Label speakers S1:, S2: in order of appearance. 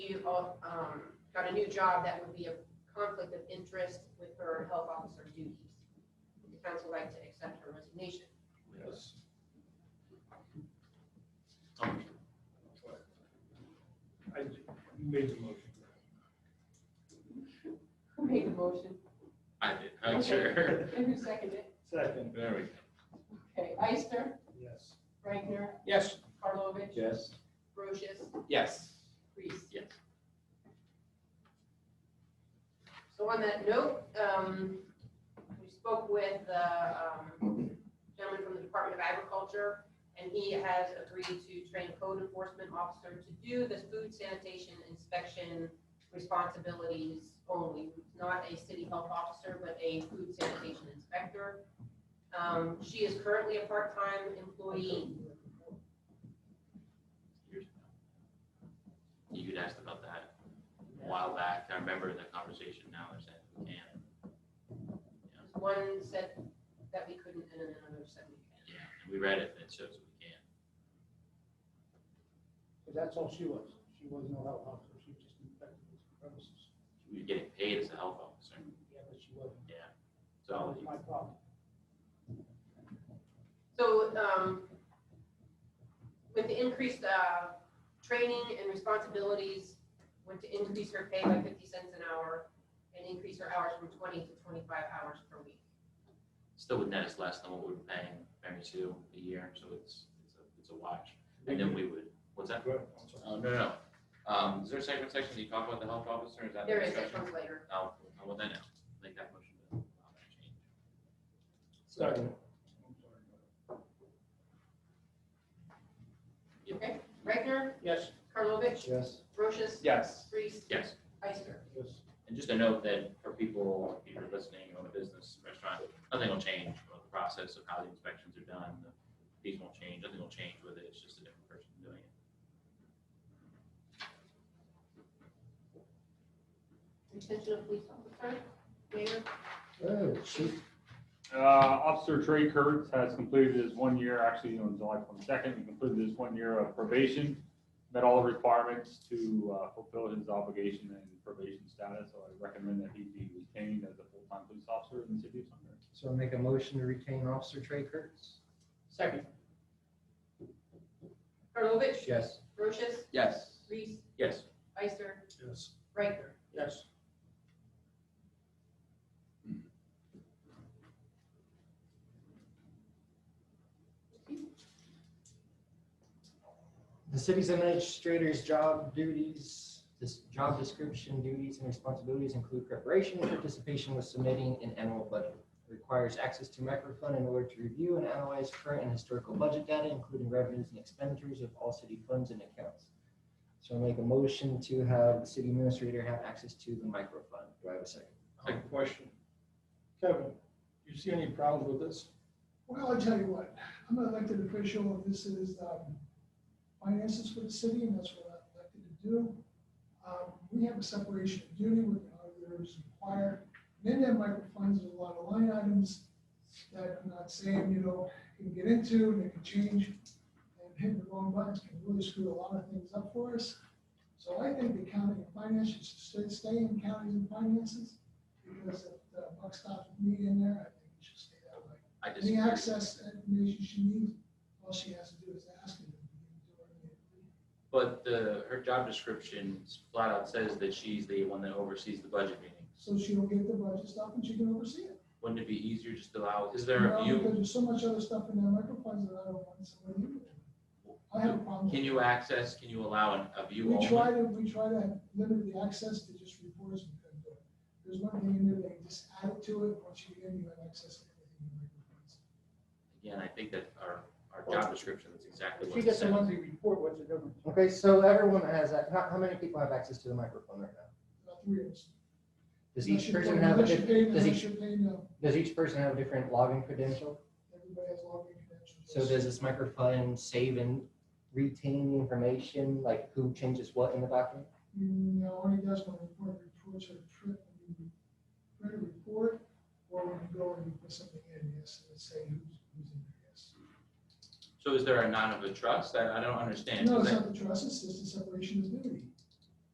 S1: she um, got a new job that would be a conflict of interest with her health officer duties. Would The council like to accept her resignation.
S2: Yes.
S3: I, you made the motion.
S1: Who made the motion?
S2: I did, I'm sure.
S1: And who seconded it?
S3: Second.
S2: There we go.
S1: Okay, Ister,
S3: Yes.
S1: Reichner,
S2: Yes.
S1: Karlovic,
S3: Yes.
S1: Brochus,
S2: Yes.
S1: Reese.
S2: Yes.
S1: So on that note, um, we spoke with the um, gentleman from the Department of Agriculture, and he has agreed to train a code enforcement officer to do the food sanitation inspection responsibilities only, not a city health officer, but a food sanitation inspector. Um, She is currently a part-time employee.
S2: You had asked about that a while back. I remember the conversation now, they're saying we can't.
S1: One said that we couldn't, and then another said we can.
S2: Yeah, and we read it, and it shows we can't.
S4: But that's all she was. She was no health officer. She just infected the premises.
S2: We were getting paid as a health officer,
S4: Yeah, but she wasn't. That
S2: so
S4: was my problem.
S1: So, um, with the increased, uh, training and responsibilities, went to increase her pay by fifty cents an hour and increase her hours from twenty to twenty-five hours per week.
S2: still would net us less than what we were paying Mary Sue a year, so it's, it's a, it's a watch. And then we would, what's that? Uh, no, no, no. Um, is there a second section, do you talk about the health officer, is that the
S1: There is, that
S2: discussion?
S1: comes later.
S2: Oh, oh, well, then, no. make that motion to allow that change.
S3: Second.
S1: Okay, Reichner,
S4: Yes.
S1: Karlovic,
S4: Yes.
S1: Brochus,
S3: Yes.
S1: Reese,
S2: Yes.
S1: Ister.
S4: Yes.
S2: And just a note that for people, if you're listening on a business restaurant, nothing will change about the process of how the inspections are done. The Fees won't change, nothing will change with it, it's just a different person doing it.
S1: Retention of police officer, Mayor,
S4: Oh, she.
S5: Uh, Officer Trey Kurtz has completed his one year, actually on July twenty-second, he completed his one year of probation. Met all the requirements to uh, fulfill his obligation and probation status, so I recommend that he be retained as a full-time police officer in the city of Sunbury.
S6: So I'll make a motion to retain Officer Trey Kurtz.
S4: Second.
S1: Karlovic,
S6: Yes.
S1: Brochus,
S3: Yes.
S1: Reese,
S2: Yes,
S1: Ister,
S3: Yes.
S1: Reichner.
S4: Yes.
S6: The city's administrator's job duties, this job description duties and responsibilities include preparation, participation with submitting an annual budget. Requires access to microfund in order to review and analyze current and historical budget data, including revenues and expenditures of all city funds and accounts. So I'll make a motion to have the city administrator have access to the microfund. Do I have a second?
S3: I have a question. Kevin, you see any problems with this?
S7: Well, I'll tell you what, I'm an elected official, this is um, finances for the city, and that's what I'm elected to do. Um, We have a separation of duty with the auditors and choir, then that micro funds there's a lot of line items that I'm not saying, you know, can get into, and they can change, and hitting the wrong buttons can really screw a lot of things up for us. So I think the county and finance should stay- stay in counties and finances, because if the buck stops with me in there, I think it should stay that way.
S2: I
S7: Any
S2: disagree.
S7: access to information she needs, all she has to do is ask it.
S2: But the, her job description flat out says that she's the one that oversees the budget meeting.
S7: So she'll get the budget stuff and she can oversee it.
S2: Wouldn't it be easier just to allow, is there a
S7: Well,
S2: view?
S7: Because there's so much other stuff in that microfunds that I don't want somebody to. do. I have a problem. with
S2: Can you access, can you allow an- a view
S7: We try
S2: only?
S7: to, we try to limit the access to just reporters. who can do it. There's one thing in there, they just add it to it, once you get in, you have access to everything in microfunds.
S2: Again, I think that our, our job description, that's exactly
S4: If
S2: what
S4: she
S2: it
S4: gets a
S2: says.
S4: monthly report, what's the difference?
S6: Okay, so everyone has, that. how, how many people have access to the microphone right now?
S7: About three of us.
S6: Does
S7: Unless
S6: each
S7: you're
S6: person
S7: paying-
S6: have a,
S7: unless you're
S6: di-
S7: paying-
S6: does
S7: Unless
S6: each,
S7: you're paying, uh,
S6: does each person have a different login credential?
S7: everybody has login credentials.
S6: So does this microphone save and retain the information, like who changes what in the document?
S7: No, only does when report reports are print, when you print a report, or when you go and you put something in, yes, and it's saying who's, who's in there, yes.
S2: So is there a non of a trust? I, I don't understand.
S7: No,
S2: Is
S7: it's
S2: that-
S7: not the trust, it's just the separation of duty.